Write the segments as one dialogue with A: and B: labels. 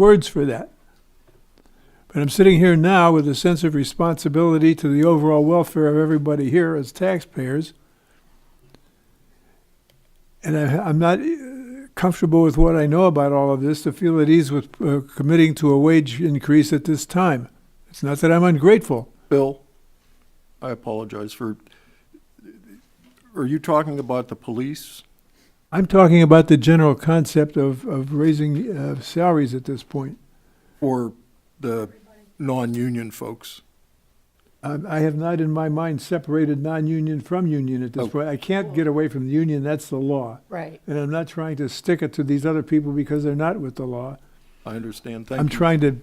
A: words for that. But I'm sitting here now with a sense of responsibility to the overall welfare of everybody here as taxpayers. And I, I'm not eh, comfortable with what I know about all of this to feel at ease with uh, committing to a wage increase at this time. It's not that I'm ungrateful.
B: Bill, I apologize for, are you talking about the police?
A: I'm talking about the general concept of, of raising uh, salaries at this point.
B: Or the non-union folks?
A: Um, I have not in my mind separated non-union from union at this
B: Oh.
A: point. I can't get away from the union, that's the law.
C: Right.
A: And I'm not trying to stick it to these other people because they're not with the law.
B: I understand,
A: I'm
B: thank you.
A: trying to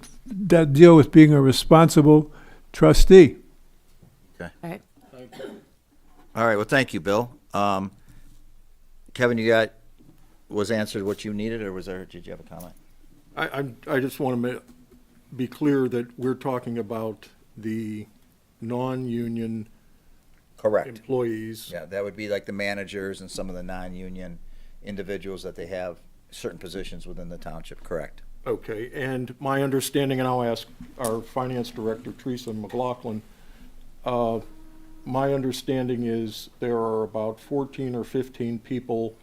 A: de- deal with being a responsible trustee.
D: All right, well, thank you, Bill. Um, Kevin, you got, was answered what you needed, or was there, did you have a comment?
B: I, I'm, I just want to be clear that we're talking about the non-union
D: Correct.
B: employees.
D: Yeah, that would be like the managers and some of the non-union individuals that they have certain positions within the township, correct?
B: Okay, and my understanding, and I'll ask our finance director, Teresa McLaughlin, uh, my understanding is there are about 14 or 15 people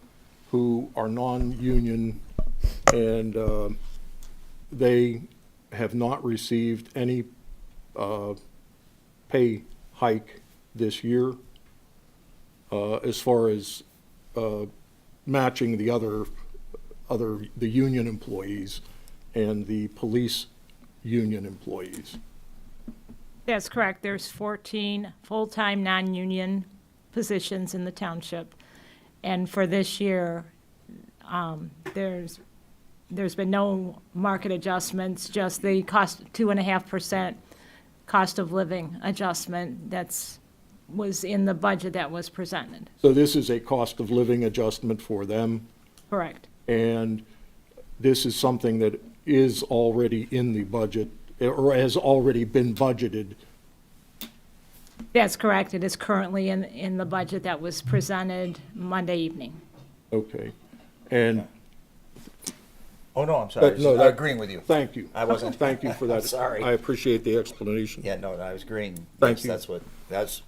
B: who are non-union, and uh, they have not received any uh, pay hike this year uh, as far as uh, matching the other, other, the union employees and the police union employees.
E: That's correct. There's 14 full-time, non-union positions in the township. And for this year, um, there's, there's been no market adjustments, just the cost, 2.5% cost of living adjustment that's, was in the budget that was presented.
B: So this is a cost of living adjustment for them,
E: Correct.
B: and this is something that is already in the budget, or has already been budgeted.
E: That's correct. It is currently in, in the budget that was presented Monday evening.
B: Okay. And,
D: Oh, no, I'm
B: sorry. Uh, no, that-
D: agreeing with you.
B: thank you.
D: I wasn't-
B: Thank you for that.
D: sorry.
B: I appreciate the explanation.
D: Yeah, no, I was agreeing.
B: Thank
D: Yes,
B: you.
D: That's what, that's a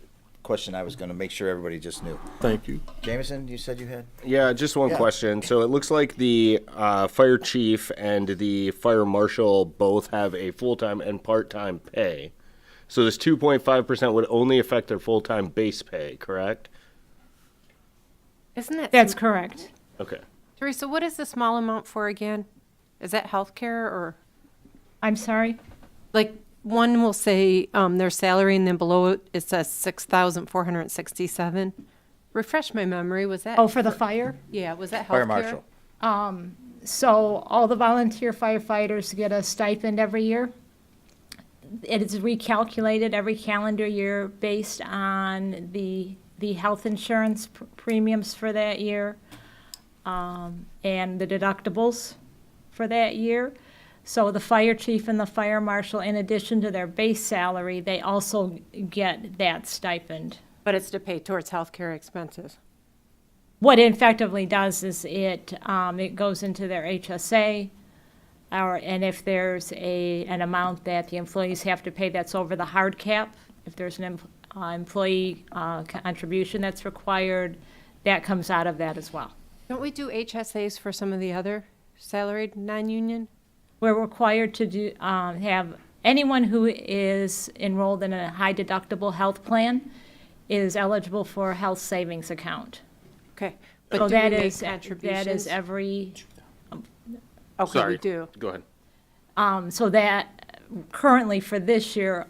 D: question I was gonna make sure everybody just knew.
B: Thank you.
D: Jameson, you said you had?
F: Yeah, just one
D: Yeah.
F: question. So it looks like the uh, fire chief and the fire marshal both have a full time and part time pay. So this 2.5% would only affect their full time base pay, correct?
C: Isn't that,
E: That's
C: sm-
E: correct.
F: Okay.
C: Teresa, what is the small amount for again? Is that healthcare or,
E: I'm sorry?
C: like, one will say um, their salary and then below it, it says 6,467? Refresh my memory, was that?
E: Oh, for the fire?
C: Yeah, was that healthcare?
D: Fire marshal.
E: So all the volunteer firefighters get a stipend every year. It is recalculated every calendar year based on the, the health insurance pr- premiums for that year um, and the deductibles for that year. So the fire chief and the fire marshal, in addition to their base salary, they also get that stipend.
C: But it's to pay towards healthcare expenses.
E: What it effectively does is it, um, it goes into their HSA, or, and if there's a, an amount that the employees have to pay that's over the hard cap, if there's an em- uh, employee, uh, contribution that's required, that comes out of that as well.
C: Don't we do HSAs for some of the other salaried non-union?
E: We're required to do, um, have, anyone who is enrolled in a high deductible health plan is eligible for a health savings account.
C: Okay. but
E: So
C: do we
E: Oh, that
C: make
E: is, that is
C: contributions?
E: every
C: Okay, we do.
F: Go ahead.
E: Um, So that, currently for this year,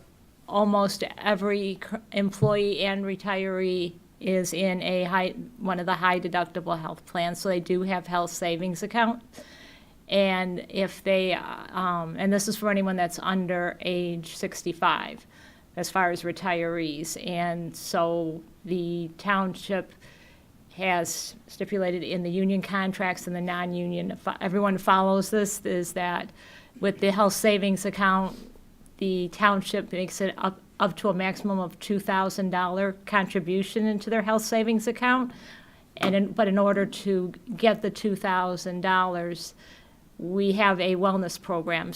E: almost every cur- employee and retiree is in a high, one of the high deductible health plans, so they do have health savings account. And if they, uh, um, and this is for anyone that's under age 65, as far as retirees. And so the township has stipulated in the union contracts and the non-union, if everyone follows this, is that with the health savings account, the township makes it up, up to a maximum of $2,000 contribution into their health savings account. And in, but in order to get the $2,000, we have a wellness program.